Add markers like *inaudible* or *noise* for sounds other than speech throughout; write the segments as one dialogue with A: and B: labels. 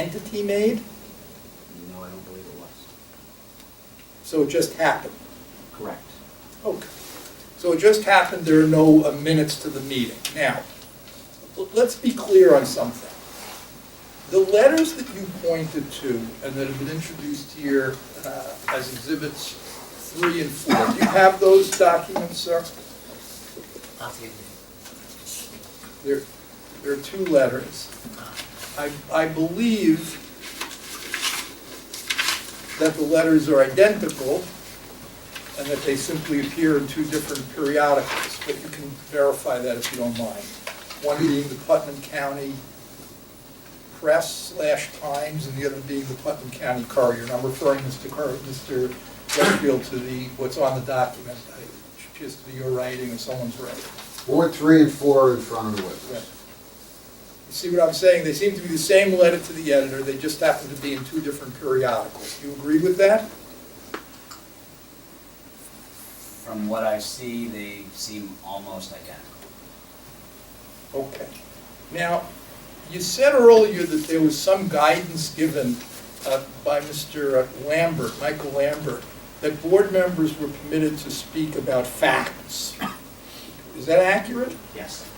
A: entity made?
B: No, I don't believe it was.
A: So it just happened?
B: Correct.
A: Okay. So it just happened, there are no uh, minutes to the meeting. Now, l- let's be clear on something. The letters that you pointed to and that have been introduced here uh, as exhibits three and four, do you have those documents, sir?
C: Not the
A: There, there are two letters. I, I believe that the letters are identical and that they simply appear in two different periodicals, but you can verify that if you don't mind. One being the Putnam County Press slash Times and the other being the Putnam County Courier. And I'm referring Mr. Cur, Mr. Westfield to the, what's on the document. It should just be your writing or someone's writing.
D: Ward three and four are in front of the
A: Right.
D: witness.
A: You see what I'm saying? They seem to be the same letter to the editor, they just happen to be in two different periodicals. Do you agree with that?
B: From what I see, they seem almost identical.
A: Okay. Now, you said earlier that there was some guidance given uh, by Mr. Lambert, Michael Lambert, that board members were permitted to speak about facts. Is that accurate?
B: Yes.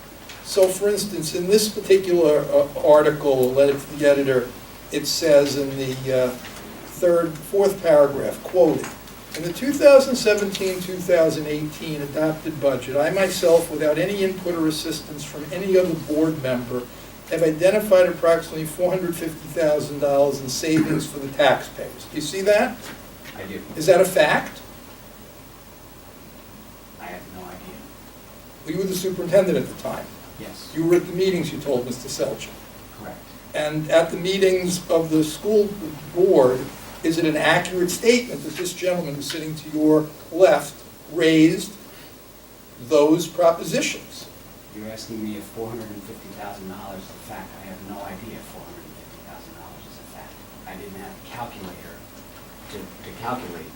A: So for instance, in this particular uh, article, letter to the editor, it says in the uh, third, fourth paragraph, quoted, "In the 2017-2018 adopted budget, I myself, without any input or assistance from any other board member, have identified approximately $450,000 in savings for the taxpayers." Do you see that?
B: I do.
A: Is that a fact?
B: I have no idea.
A: You were the superintendent at the time.
B: Yes.
A: You were at the meetings, you told Mr. Selchuk.
B: Correct.
A: And at the meetings of the school board, is it an accurate statement that this gentleman who's sitting to your left raised those propositions?
B: You're asking me if four hundred and fifty thousand dollars is a fact. I have no idea if four hundred and fifty thousand dollars is a fact. I didn't have a calculator to, to calculate.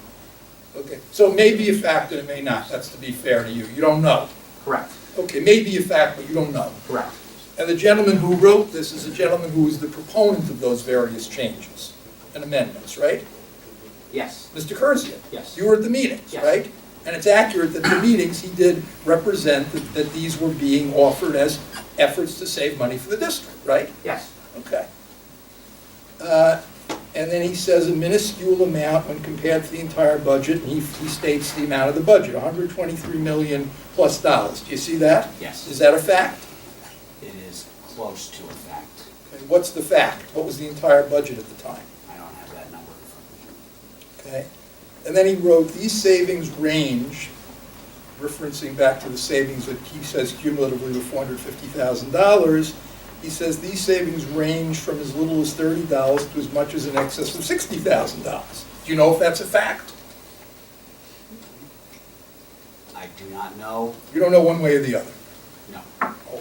A: Okay, so it may be a fact and it may not, that's to be fair to you, you don't know.
B: Correct.
A: Okay, it may be a fact, but you don't know.
B: Correct.
A: And the gentleman who wrote this is a gentleman who is the proponent of those various changes and amendments, right?
B: Yes.
A: Mr. Curzian?
B: Yes.
A: You were at the meetings,
B: Yes.
A: right? And it's accurate
B: *clears throat*
A: that the meetings, he did represent that, that these were being offered as efforts to save money for the district, right?
B: Yes.
A: Okay. Uh, And then he says a minuscule amount when compared to the entire budget, and he he states the amount of the budget, 123 million plus dollars. Do you see that?
B: Yes.
A: Is that a fact?
B: It is close to a fact.
A: Okay, What's the fact? What was the entire budget at the time?
B: I don't have that number in front of me.
A: Okay? And then he wrote, these savings range, referencing back to the savings that he says cumulatively were four hundred fifty thousand dollars. He says these savings range from as little as thirty dollars to as much as in excess of sixty thousand dollars. Do you know if that's a fact?
B: I do not know,
A: You don't know one way or the other.
B: no.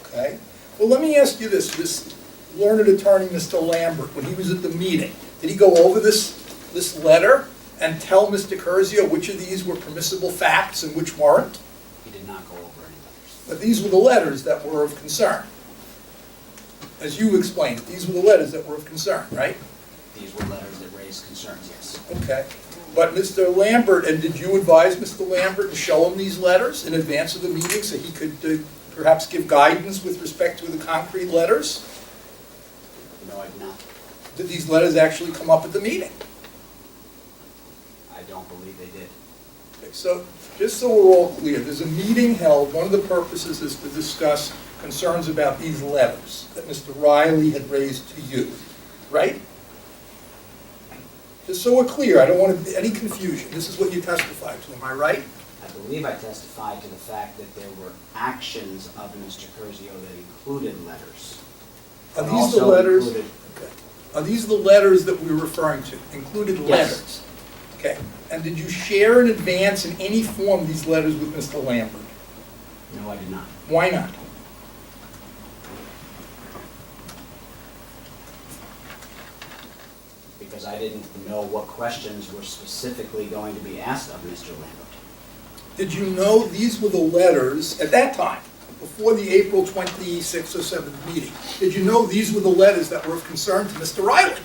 A: Okay. Well, let me ask you this, this learned attorney, Mr. Lambert, when he was at the meeting, did he go over this, this letter and tell Mr. Curzio which of these were permissible facts and which weren't?
B: He did not go over any letters.
A: But these were the letters that were of concern. As you explained, these were the letters that were of concern, right?
B: These were letters that raised concerns, yes.
A: Okay. But Mr. Lambert, and did you advise Mr. Lambert to show him these letters in advance of the meeting so he could uh, perhaps give guidance with respect to the concrete letters?
B: No, I've not.
A: Did these letters actually come up at the meeting?
B: I don't believe they did.
A: Okay, So, just so we're all clear, there's a meeting held, one of the purposes is to discuss concerns about these letters that Mr. Riley had raised to you, right? Just so we're clear, I don't want to- any confusion, this is what you testified to, am I right?
B: I believe I testified to the fact that there were actions of Mr. Curzio that included letters.
A: Are
B: And
A: these the
B: also
A: letters?
B: included-
A: Okay. Are these the letters that we're referring to, included
B: Yes.
A: letters? Okay, and did you share in advance in any form these letters with Mr. Lambert?
B: No, I did not.
A: Why not?
B: Because I didn't know what questions were specifically going to be asked of Mr. Lambert.
A: Did you know these were the letters, at that time, before the April 26th or 7th meeting, did you know these were the letters that were of concern to Mr. Riley?